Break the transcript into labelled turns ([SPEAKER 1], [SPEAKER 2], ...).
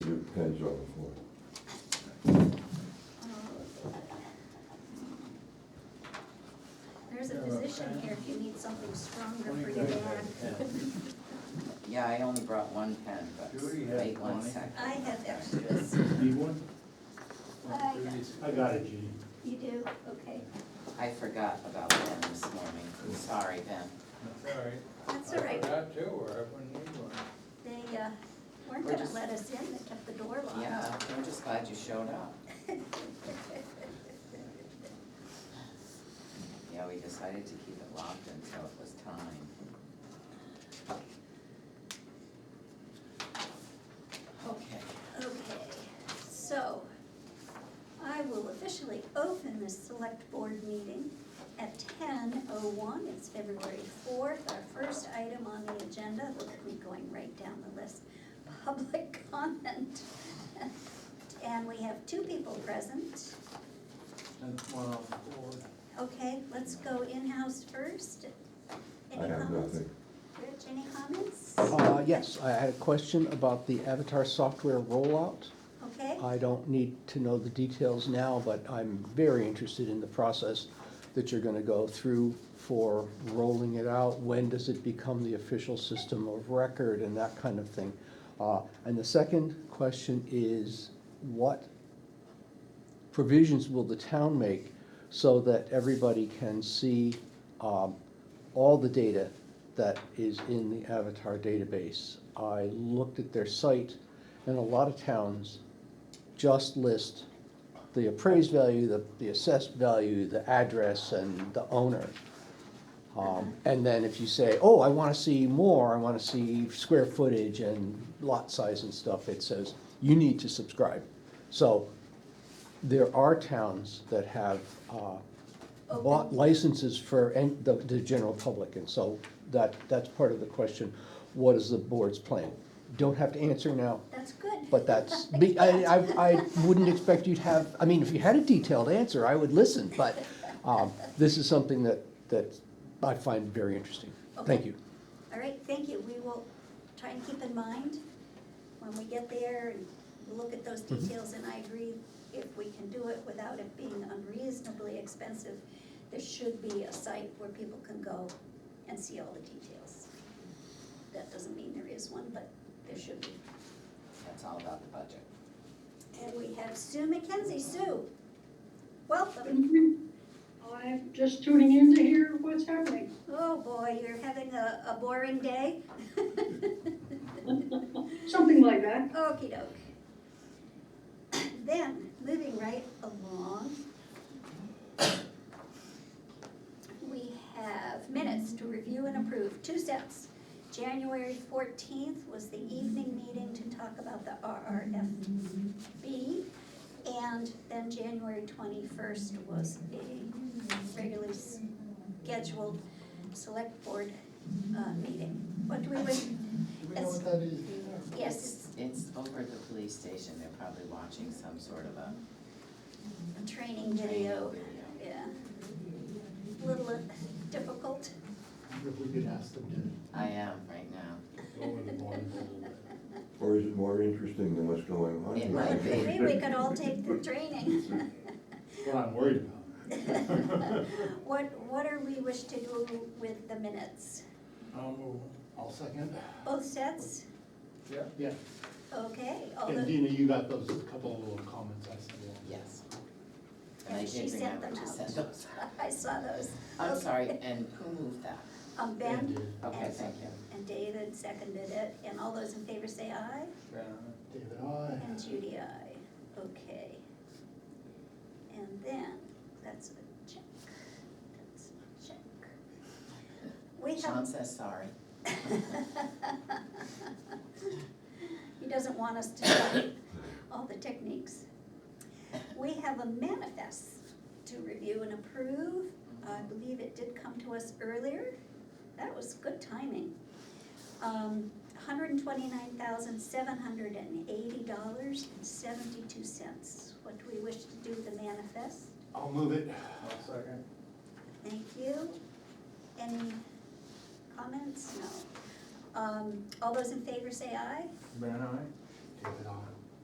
[SPEAKER 1] pen's on the floor.
[SPEAKER 2] There's a position here if you need something stronger for your back.
[SPEAKER 3] Yeah, I only brought one pen, but
[SPEAKER 4] Judy had
[SPEAKER 3] wait one
[SPEAKER 4] twenty.
[SPEAKER 3] second.
[SPEAKER 2] I have extras.
[SPEAKER 5] Need one?
[SPEAKER 2] I-
[SPEAKER 5] I got it, Jean.
[SPEAKER 2] You do, okay.
[SPEAKER 3] I forgot about Ben this morning. I'm sorry, Ben.
[SPEAKER 4] That's all right.
[SPEAKER 2] That's all
[SPEAKER 4] I
[SPEAKER 2] right.
[SPEAKER 4] forgot too, or I wouldn't need one.
[SPEAKER 2] They uh, weren't
[SPEAKER 3] We're
[SPEAKER 2] gonna
[SPEAKER 3] just-
[SPEAKER 2] let us in, they kept the door locked.
[SPEAKER 3] Yeah, we're just glad you showed up. Yeah, we decided to keep it locked until it was time. Okay.
[SPEAKER 2] Okay, so I will officially open this select board meeting at ten oh one. It's February fourth, our first item on the agenda. Look at me going right down the list. Public comment. And we have two people present.
[SPEAKER 4] And one off the board.
[SPEAKER 2] Okay, let's go in-house first.
[SPEAKER 1] I
[SPEAKER 2] Any
[SPEAKER 1] have
[SPEAKER 2] comments?
[SPEAKER 1] nothing.
[SPEAKER 2] Rich, any comments?
[SPEAKER 6] Uh, Yes, I had a question about the Avatar software rollout.
[SPEAKER 2] Okay,
[SPEAKER 6] I don't need to know the details now, but I'm very interested in the process that you're going to go through for rolling it out. When does it become the official system of record and that kind of thing? Uh, And the second question is, what provisions will the town make so that everybody can see um, all the data that is in the Avatar database? I looked at their site, and a lot of towns just list the appraised value, the, the assessed value, the address, and the owner. Um, And then if you say, oh, I wanna see more, I wanna see square footage and lot size and stuff, it says, you need to subscribe. So there are towns that have uh, bought
[SPEAKER 2] Open.
[SPEAKER 6] licenses for en- the, the general public, and so that, that's part of the question. What is the board's plan? Don't have to answer now,
[SPEAKER 2] that's good.
[SPEAKER 6] but that's, be- I, I, I wouldn't expect you to have, I mean, if you had a detailed answer, I would listen, but, um, this is something that, that I find very interesting. Thank
[SPEAKER 2] Okay.
[SPEAKER 6] you.
[SPEAKER 2] All right, thank you. We will try and keep in mind when we get there and look at those details. And I agree, if we can do it without it being unreasonably expensive, there should be a site where people can go and see all the details. That doesn't mean there is one, but there should be.
[SPEAKER 3] That's all about the budget.
[SPEAKER 2] And we have Sue McKenzie. Sue, welcome.
[SPEAKER 7] I'm just tuning in to hear what's happening.
[SPEAKER 2] Oh, boy, you're having a, a boring day?
[SPEAKER 7] Something like that.
[SPEAKER 2] Okey doke. Then, moving right along, we have minutes to review and approve, two sets. January fourteenth was the evening meeting to talk about the RRFB. And then January twenty-first was a regularly scheduled select board, uh, meeting. What do we, wish-
[SPEAKER 4] Do we know what that is?
[SPEAKER 2] yes,
[SPEAKER 3] It's over at the police station. They're probably watching some sort of a
[SPEAKER 2] a training
[SPEAKER 3] training
[SPEAKER 2] video.
[SPEAKER 3] video.
[SPEAKER 2] Yeah. Little uh, difficult.
[SPEAKER 5] If we could ask them
[SPEAKER 3] I am right now.
[SPEAKER 5] to go over the bond a little bit.
[SPEAKER 1] Or is it more interesting than what's going on?
[SPEAKER 3] It
[SPEAKER 1] here?
[SPEAKER 3] might be.
[SPEAKER 2] Maybe we could all take the training.
[SPEAKER 5] What I'm worried about.
[SPEAKER 2] What, what are we wish to do with the minutes?
[SPEAKER 4] I'll move.
[SPEAKER 5] I'll second.
[SPEAKER 2] Both sets?
[SPEAKER 4] Yeah.
[SPEAKER 5] Yeah,
[SPEAKER 2] Okay, all
[SPEAKER 5] and
[SPEAKER 2] the,
[SPEAKER 5] Dina, you got those couple of little comments I sent along.
[SPEAKER 3] Yes. And I
[SPEAKER 2] And she
[SPEAKER 3] did
[SPEAKER 2] sent
[SPEAKER 3] remember
[SPEAKER 2] them
[SPEAKER 3] to
[SPEAKER 2] out.
[SPEAKER 3] send those.
[SPEAKER 2] I saw those.
[SPEAKER 3] I'm
[SPEAKER 2] Okay.
[SPEAKER 3] sorry, and who moved that?
[SPEAKER 2] Um, Ben
[SPEAKER 5] And, uh,
[SPEAKER 3] Okay, thank you.
[SPEAKER 2] and David seconded it, and all those in favor say aye,
[SPEAKER 4] Brown.
[SPEAKER 5] David, aye.
[SPEAKER 2] and Judy aye. Okay. And then, that's a check, that's a check. We have
[SPEAKER 3] Sean says sorry.
[SPEAKER 2] He doesn't want us to know all the techniques. We have a manifest to review and approve. I believe it did come to us earlier. That was good timing. Um, hundred and twenty-nine thousand, seven hundred and eighty dollars and seventy-two cents. What do we wish to do with the manifest?
[SPEAKER 5] I'll move it.
[SPEAKER 4] I'll second.
[SPEAKER 2] Thank you. Any comments? No. Um, all those in favor say aye.
[SPEAKER 4] Brown, aye.
[SPEAKER 5] David, aye.